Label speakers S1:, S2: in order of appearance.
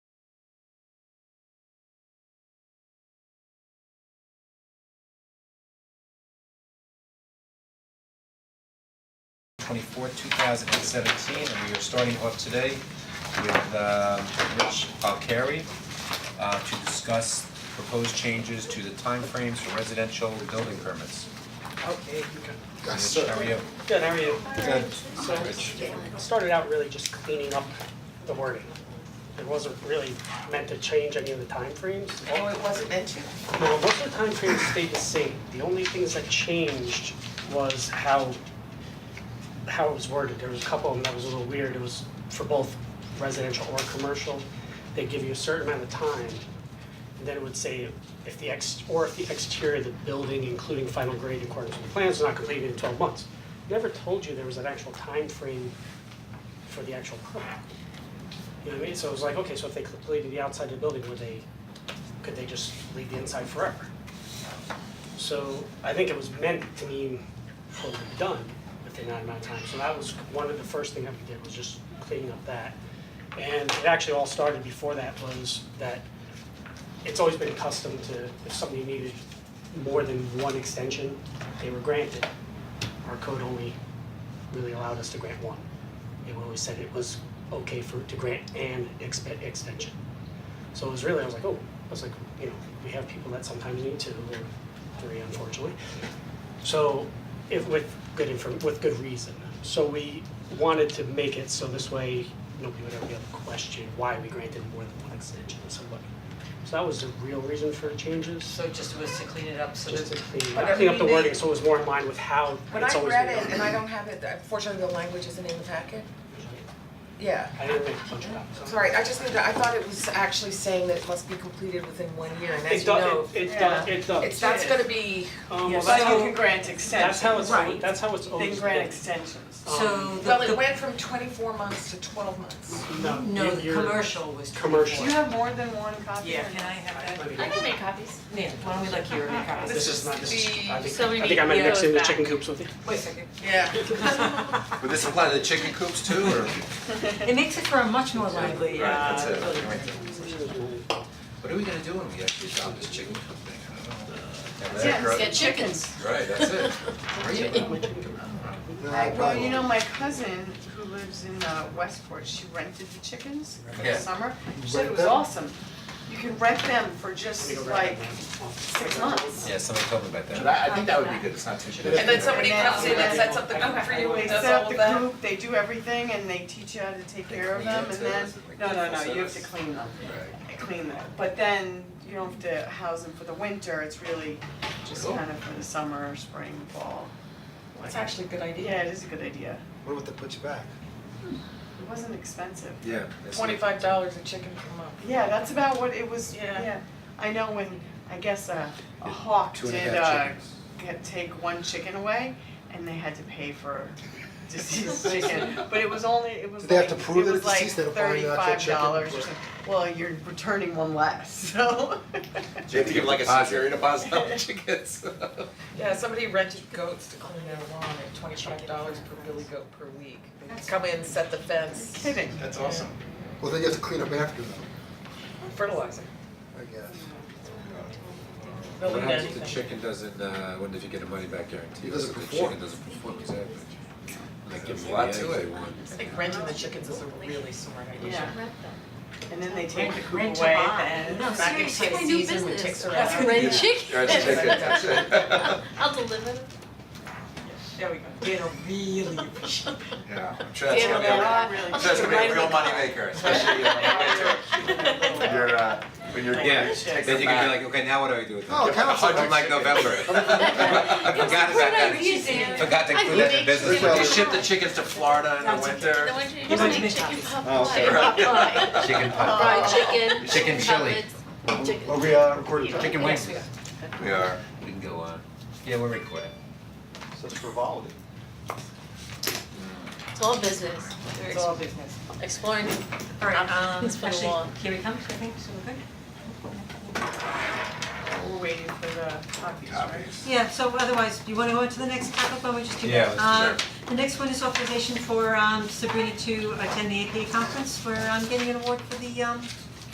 S1: twenty-fourth, two thousand and seventeen, and we are starting off today with um, Rich Falcari uh, to discuss proposed changes to the timeframes for residential building permits.
S2: Okay,
S1: Rich, how are you?
S2: good, how are you?
S1: Good.
S2: So,
S1: Rich.
S2: started out really just cleaning up the wording. It wasn't really meant to change any of the timeframes.
S3: Oh, it wasn't mentioned?
S2: No, most of the timeframes stayed the same. The only things that changed was how, how it was worded. There was a couple of them that was a little weird. It was for both residential or commercial. They give you a certain amount of time. And then it would say if the ex, or if the exterior of the building, including final grade in accordance with the plans, is not completed in twelve months. Never told you there was an actual time frame for the actual permit. You know what I mean? So it was like, okay, so if they completed the outside of the building, would they could they just leave the inside forever? So I think it was meant to mean totally done within that amount of time, so that was one of the first thing that we did was just cleaning up that. And it actually all started before that was that it's always been custom to, if somebody needed more than one extension, they were granted. Our code only really allowed us to grant one. It always said it was okay for, to grant an expe- extension. So it was really, I was like, oh, I was like, you know, we have people that sometimes need two or three, unfortunately. So if with good inform, with good reason. So we wanted to make it so this way, nobody would ever be able to question why we granted more than one extension to somebody. So that was the real reason for the changes,
S3: So it just was to clean it up so
S2: just to
S3: that.
S2: clean,
S3: But I
S2: clean up the
S3: mean,
S2: wording,
S3: they-
S2: so it was more in line with how
S3: When
S2: it's
S3: I
S2: always
S3: read
S2: been done.
S3: it, and I don't have it, unfortunately, the language isn't in the packet, yeah.
S2: I didn't make a bunch of copies.
S3: Sorry, I just need to, I thought it was actually saying that it must be completed within one year, and as
S2: It
S3: you know,
S2: does, it, it does, it does.
S3: it's, that's gonna be,
S2: Um,
S4: Yeah,
S2: well, that's
S4: so
S2: how-
S4: you can grant
S2: That's
S4: extensions.
S2: how it's,
S3: Right.
S2: that's how it's
S4: They
S2: always
S4: can grant
S2: been.
S4: extensions.
S2: Um,
S5: So
S3: well, it
S5: the,
S3: went from twenty-four months to twelve months.
S2: No,
S5: the, no, the
S2: you're-
S5: commercial was twenty-four.
S2: commercial.
S4: Do you have more than one copy?
S5: Yeah, can I
S2: I
S5: have that?
S2: mean,
S6: I can make copies.
S5: Nan, why don't we let Kira make copies?
S2: This is not, this is, I
S6: So
S2: think, I
S6: we need
S2: think I might
S6: the
S2: mix in the
S6: yellows
S2: chicken
S6: back.
S2: coops with you.
S5: Wait a second.
S3: Yeah.
S1: Would this apply to the chicken coops too, or?
S5: It makes it for a much more lively,
S4: Right,
S5: uh,
S1: that's it,
S5: building.
S1: right there. What are we gonna do when we actually adopt this chicken coop thing? I don't know.
S6: Let's get chickens.
S1: Right, that's it. Are you?
S4: Well, you know, my cousin who lives in uh, Westport, she rented the chickens for the
S1: Yeah.
S4: summer. She said it was
S2: Rent them?
S4: awesome. You can rent them for just like six months.
S1: Yeah, somebody told me about that.
S7: But I, I think that would be good, it's not too bad.
S3: And then somebody comes in and sets up the coop for you
S4: They
S3: and does
S4: set up
S3: all
S4: the
S3: of that.
S4: coop, they do everything, and they teach you how to take care of
S1: clean
S4: them,
S1: it
S4: and
S1: too,
S4: then,
S1: is it like
S4: no, no, no,
S1: full
S4: you have to
S1: service?
S4: clean them,
S1: Right.
S4: clean them. But then you don't have to house them for the winter, it's really just
S1: Cool.
S4: kind of for the summer, spring, fall.
S3: It's actually a good idea.
S4: Yeah, it is a good idea.
S8: What about the put you back?
S4: It wasn't expensive.
S1: Yeah. that's it.
S3: Twenty-five dollars a chicken per month.
S4: Yeah, that's about what it was,
S3: Yeah.
S4: yeah. I know when, I guess a, a hawk
S1: Two and a
S4: did,
S1: half
S4: uh,
S1: chickens.
S4: get, take one chicken away, and they had to pay for deceased chicken, but it was only, it was like,
S8: Did they have
S4: it
S8: to prove that
S4: was
S8: it's
S4: like
S8: deceased? They don't find
S4: thirty-five dollars
S8: the
S4: or something.
S8: actual chicken?
S4: Well, you're returning one less, so.
S7: You have to give like a security deposit on the chickens.
S3: Yeah, somebody rented goats to clean their lawn at twenty-five dollars per billy goat per week. They Come in, set the fence,
S4: Kidding.
S7: That's awesome.
S8: Well, then you have to clean up after them,
S3: fertilizer.
S8: I guess.
S3: They'll
S1: What
S3: eat
S1: happens if the
S3: anything.
S1: chicken doesn't, uh, what if you get a money back guarantee?
S8: It doesn't
S1: What if
S8: perform.
S1: The chicken doesn't perform, exactly. Like give
S7: There's a
S1: me the
S7: lot
S1: eggs
S7: to
S1: they
S7: it.
S1: want.
S3: I think renting the chickens is a really smart idea.
S4: Yeah, and then they take the coop
S5: Rent to
S4: away,
S5: buy.
S4: and
S5: No,
S3: Back into
S5: seriously,
S3: the
S6: my new
S3: season, when
S6: business.
S3: ticks are
S6: That's
S3: out.
S6: great.
S1: Yeah.
S6: chicken.
S1: Right, it's chicken, that's it.
S6: I'll deliver them.
S4: there we go.
S3: Dana really appreciate
S7: Yeah, I'm sure that's
S6: Yeah,
S7: gonna be,
S6: they're
S7: a-
S6: not-
S4: really
S7: I'm sure that's gonna be a real moneymaker, especially uh, when you're- when you're, uh, when you're.
S1: Yeah,
S4: Chicken.
S1: then you can be like, okay, now what do I do with that?
S8: Oh,
S1: Yeah,
S8: council
S1: I like
S8: likes
S1: November. I forgot about that, forgot to include that in business.
S6: I
S7: They
S6: think
S7: ship the chickens to Florida in the winter.
S6: Then why don't you just make chicken pot pie?
S7: Right.
S6: Pot pie.
S1: Chicken
S6: Fried
S1: pot
S6: chicken.
S1: Chicken chili.
S6: cutlets, Chicken.
S8: Are we, uh, recording?
S1: Chicken wings.
S3: Yeah.
S7: We are.
S1: We can go on. Yeah, we're recording.
S8: Such frivolity.
S6: It's all business.
S4: It's all business.
S6: We're exploring
S5: Alright, um,
S6: It's been a
S5: actually,
S6: while.
S5: here we come, I think, so we're good.
S4: We're waiting for the copies, right?
S7: Copies.
S5: Yeah, so otherwise, do you wanna go on to the next topic, or we just do
S1: Yeah,
S5: that?
S1: let's
S7: do
S5: Uh, the next one is authorization for um Sabrina to attend the APA conference, we're um getting an award for the um